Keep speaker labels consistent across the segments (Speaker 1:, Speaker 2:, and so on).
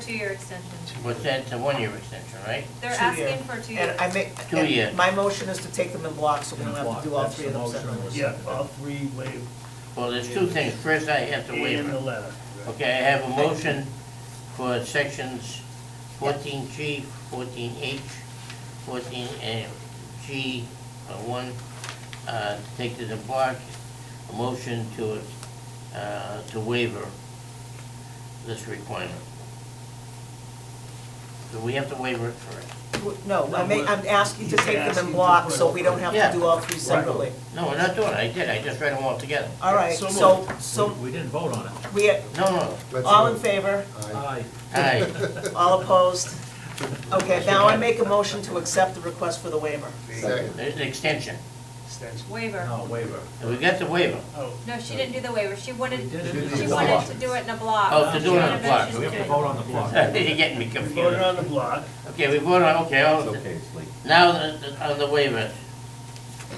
Speaker 1: Two-year extension.
Speaker 2: But that's a one-year extension, right?
Speaker 1: They're
Speaker 3: Two-year.
Speaker 1: asking for two years.
Speaker 3: And I make,
Speaker 2: Two year.
Speaker 3: and my motion is to take them in blocks, so we don't have to do all
Speaker 4: That's
Speaker 3: three of
Speaker 4: the
Speaker 3: them
Speaker 4: motion.
Speaker 3: separately.
Speaker 4: Yeah,
Speaker 5: Yeah, all three waived
Speaker 2: Well, there's two things. First, I have to waive.
Speaker 5: and the letter.
Speaker 2: Okay, I have a motion for sections fourteen G, fourteen H, fourteen G one, uh, take to the block, a motion to, uh, to waiver this requirement. So we have to waiver it first.
Speaker 3: No, I'm, ma- I'm asking to
Speaker 5: He's
Speaker 3: take them
Speaker 5: asking
Speaker 3: in
Speaker 5: to
Speaker 3: blocks,
Speaker 5: put
Speaker 3: so
Speaker 5: all
Speaker 3: we don't
Speaker 5: three.
Speaker 3: have
Speaker 2: Yeah.
Speaker 3: to do all three separately.
Speaker 2: No, we're not doing it. I did. I just read them all together.
Speaker 3: All right,
Speaker 5: So
Speaker 3: so,
Speaker 5: moved.
Speaker 3: so
Speaker 4: We didn't vote on it.
Speaker 3: we,
Speaker 2: No, no.
Speaker 6: Let's
Speaker 3: all in
Speaker 6: vote.
Speaker 3: favor,
Speaker 6: Aye.
Speaker 4: Aye.
Speaker 2: Aye.
Speaker 3: all opposed? Okay, now I make a motion to accept the request for the waiver.
Speaker 6: Second.
Speaker 2: There's an extension.
Speaker 5: Extension.
Speaker 1: Waiver.
Speaker 4: No, waiver.
Speaker 2: We got the waiver.
Speaker 5: Oh,
Speaker 1: No, she didn't do the waiver. She
Speaker 4: We
Speaker 1: wanted,
Speaker 4: did
Speaker 6: She
Speaker 4: it.
Speaker 1: she
Speaker 6: did
Speaker 4: in a
Speaker 6: the
Speaker 1: wanted
Speaker 4: block.
Speaker 1: to do it in a block.
Speaker 2: Oh, to do it in a
Speaker 1: She
Speaker 2: block.
Speaker 1: had
Speaker 4: We have to
Speaker 1: motion
Speaker 4: vote on the block.
Speaker 2: You're getting me
Speaker 5: we
Speaker 2: confused.
Speaker 5: voted on the block.
Speaker 2: Okay, we voted on, okay, all,
Speaker 7: It's okay, it's late.
Speaker 2: now the- the- on the waivers.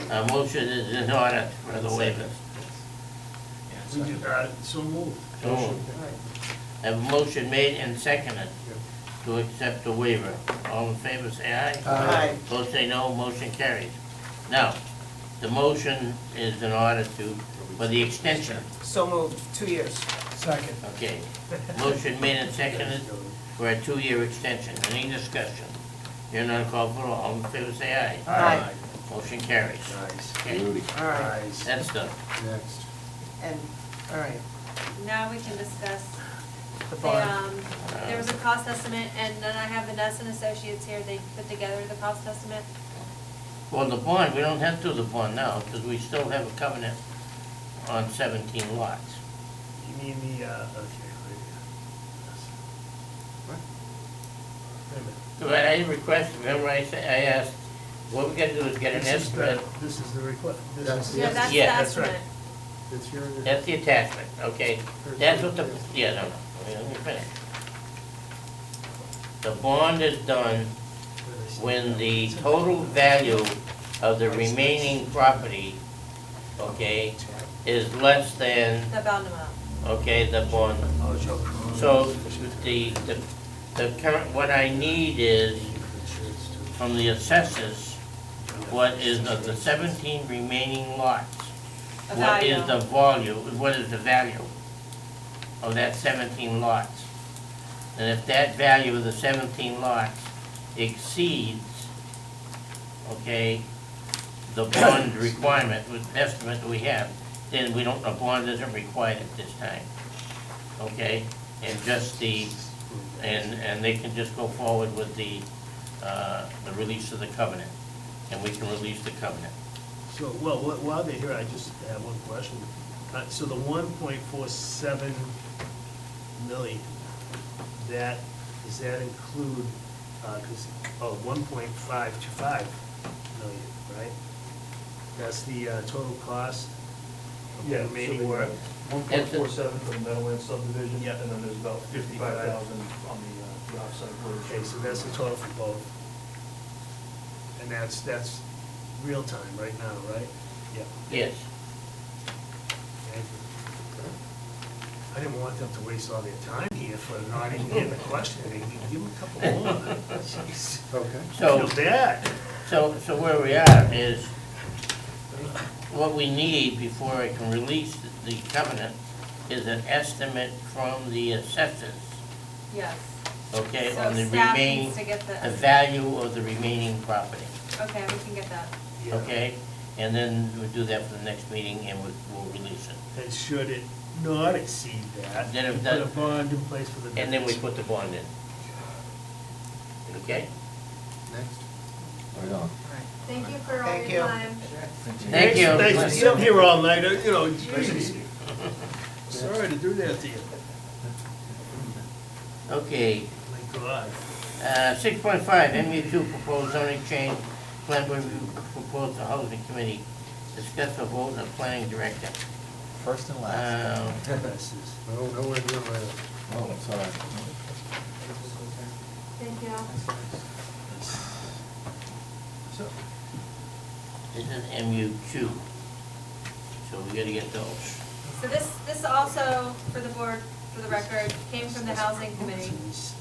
Speaker 2: A motion is in order for the waivers.
Speaker 5: We did, uh, so moved.
Speaker 2: So, a motion made and seconded to accept the waiver. All in favor, say aye.
Speaker 3: Aye.
Speaker 2: Opposed, say no, motion carries. Now, the motion is in order to, for the extension,
Speaker 3: So moved, two years.
Speaker 5: Second.
Speaker 2: okay. Motion made and seconded for a two-year extension. Any discussion? You're not called for, all in favor, say aye.
Speaker 3: Aye.
Speaker 2: Motion carries.
Speaker 5: Nice.
Speaker 2: Okay,
Speaker 3: All right,
Speaker 5: Nice.
Speaker 2: that's done.
Speaker 6: Next.
Speaker 3: and, all right,
Speaker 1: Now we can discuss.
Speaker 3: the
Speaker 1: They,
Speaker 3: bond.
Speaker 1: um, there was a cost estimate and then I have Vanessa and Associates here. They put together the cost estimate.
Speaker 2: Well, the bond, we don't have to do the bond now, because we still have a covenant on seventeen lots.
Speaker 5: You mean the, uh, okay, right here. Yes.
Speaker 6: What?
Speaker 5: Wait a minute.
Speaker 2: So I I requested, remember I said, I asked, what we gotta do is get an
Speaker 5: This is the-
Speaker 2: estimate,
Speaker 5: This is the request. This
Speaker 6: That's
Speaker 5: is-
Speaker 6: the-
Speaker 1: No, that's the
Speaker 2: Yeah,
Speaker 5: that's right.
Speaker 1: estimate.
Speaker 6: It's here.
Speaker 2: that's the attachment, okay? That's what the, yeah, no, no, wait, let me finish. The bond is done when the total value of the remaining property, okay, is less than,
Speaker 1: The bound amount.
Speaker 2: okay, the bond
Speaker 5: Oh, Joe Cronin.
Speaker 2: So the, the, the current, what I need is from the assessors, um, what is of the seventeen remaining lots?
Speaker 1: A
Speaker 2: What is
Speaker 1: value.
Speaker 2: the volume, what is the value of that seventeen lots? And if that value of the seventeen lots exceeds, okay, the bond requirement, with estimate that we have, then we don't, a bond isn't required at this time. Okay, and just the, and, and they can just go forward with the, uh, the release of the covenant, and we can release the covenant.
Speaker 5: So, well, wh- while they're here, I just have one question. Uh, So the one point four seven million, that, does that include, uh 'cause oh, one point five to five million, right? That's the uh, total cost of the
Speaker 8: Yeah,
Speaker 5: remaining work?
Speaker 8: One point four seven for the Meadowland subdivision,
Speaker 5: Yeah.
Speaker 8: and then there's about fifty-five thousand on the, uh, the offsite road.
Speaker 5: Okay, so that's the total for both. And that's, that's real time right now, right? Yeah.
Speaker 2: Yes,
Speaker 5: Okay. I didn't want them to waste all their time here for not even getting the question, They can give them a couple more. Jeez.
Speaker 6: Okay.
Speaker 2: so,
Speaker 5: Feel bad.
Speaker 2: so, so where we are is, what we need before I can release the covenant is an estimate from the assessors,
Speaker 1: Yes.
Speaker 2: okay,
Speaker 1: So
Speaker 2: on the
Speaker 1: staff
Speaker 2: remaining,
Speaker 1: needs to get the-
Speaker 2: the value of the remaining property.
Speaker 1: Okay, we can get that.
Speaker 5: Yeah.
Speaker 2: Okay, and then we'll do that for the next meeting and we'll, we'll release it.
Speaker 5: And should it not exceed that,
Speaker 2: Then
Speaker 5: then
Speaker 2: if
Speaker 5: put
Speaker 2: that-
Speaker 5: a bond in place for the
Speaker 2: And then we put
Speaker 5: difference.
Speaker 2: the bond in. Okay?
Speaker 6: Next.
Speaker 7: Right on.
Speaker 1: Thank you for all
Speaker 3: Thank
Speaker 1: your
Speaker 3: you.
Speaker 1: time.
Speaker 2: Thank you.
Speaker 5: Thanks for sitting here all night, you know, geez. Sorry to do that to you.
Speaker 2: Okay,
Speaker 5: My God.
Speaker 2: uh, six point five, MU two proposed zoning change, plan review proposed to housing committee, discuss the vote of planning director.
Speaker 7: First and
Speaker 2: Um,
Speaker 5: This is-
Speaker 6: No, nowhere near my,
Speaker 7: Oh, sorry.
Speaker 1: Thank you.
Speaker 2: this is MU two, so we gotta get those.
Speaker 1: So this, this also, for the board, for the record, came from the housing committee.
Speaker 5: Jeez.